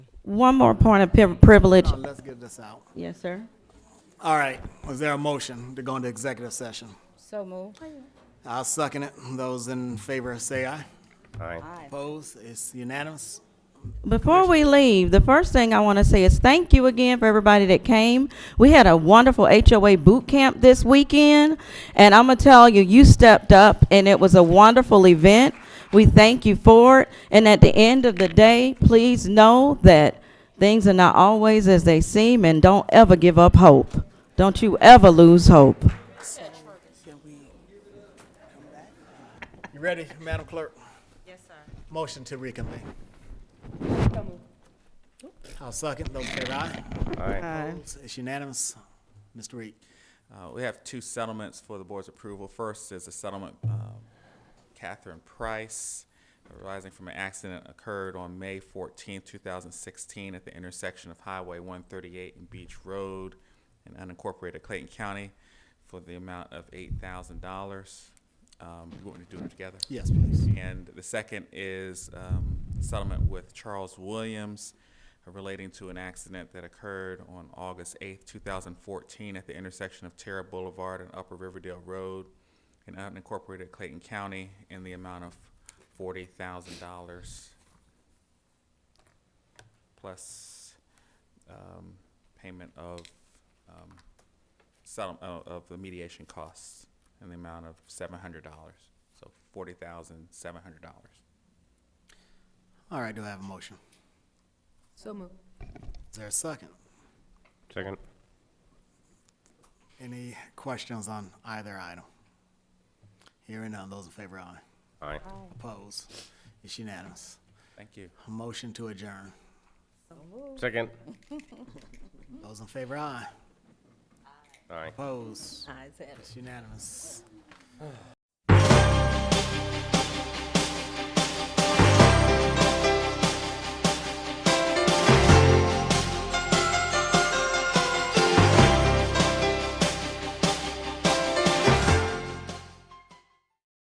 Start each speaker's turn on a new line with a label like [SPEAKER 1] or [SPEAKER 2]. [SPEAKER 1] One more point of pri- privilege.
[SPEAKER 2] Now, let's get this out.
[SPEAKER 1] Yes, sir.
[SPEAKER 2] All right, was there a motion to go into executive session?
[SPEAKER 1] So moved.
[SPEAKER 2] I'll second it. Those in favor say aye.
[SPEAKER 3] Aye.
[SPEAKER 2] Opposed? It's unanimous.
[SPEAKER 1] Before we leave, the first thing I want to say is thank you again for everybody that came. We had a wonderful HOA boot camp this weekend, and I'm gonna tell you, you stepped up, and it was a wonderful event. We thank you for it, and at the end of the day, please know that things are not always as they seem, and don't ever give up hope. Don't you ever lose hope.
[SPEAKER 2] You ready, Madam Clerk? Yes, sir. Motion to reconvene. I'll second. Those in favor aye.
[SPEAKER 3] Aye.
[SPEAKER 2] Opposed? It's unanimous. Mr. Reed.
[SPEAKER 4] Uh, We have two settlements for the board's approval. First is a settlement, um, Catherine Price, arising from an accident occurred on May 14, 2016, at the intersection of Highway 138 and Beach Road in unincorporated Clayton County for the amount of $8,000. Um, You want me to do them together?
[SPEAKER 2] Yes, please.
[SPEAKER 4] And the second is um, settlement with Charles Williams relating to an accident that occurred on August 8th, 2014 at the intersection of Terra Boulevard and Upper Riverdale Road in unincorporated Clayton County in the amount of $40,000 plus um, payment of um, settle- uh, of the mediation costs in the amount of seven hundred dollars, so forty thousand seven hundred dollars.
[SPEAKER 2] All right, do I have a motion?
[SPEAKER 5] So moved.
[SPEAKER 2] Is there a second?
[SPEAKER 3] Second.
[SPEAKER 2] Any questions on either item? Hearing none. Those in favor aye.
[SPEAKER 3] Aye.
[SPEAKER 2] Opposed? It's unanimous.
[SPEAKER 4] Thank you.
[SPEAKER 2] Motion to adjourn.
[SPEAKER 3] Second.
[SPEAKER 2] Those in favor aye.
[SPEAKER 3] Aye.
[SPEAKER 2] Opposed?
[SPEAKER 5] Eyes have it.
[SPEAKER 2] It's unanimous.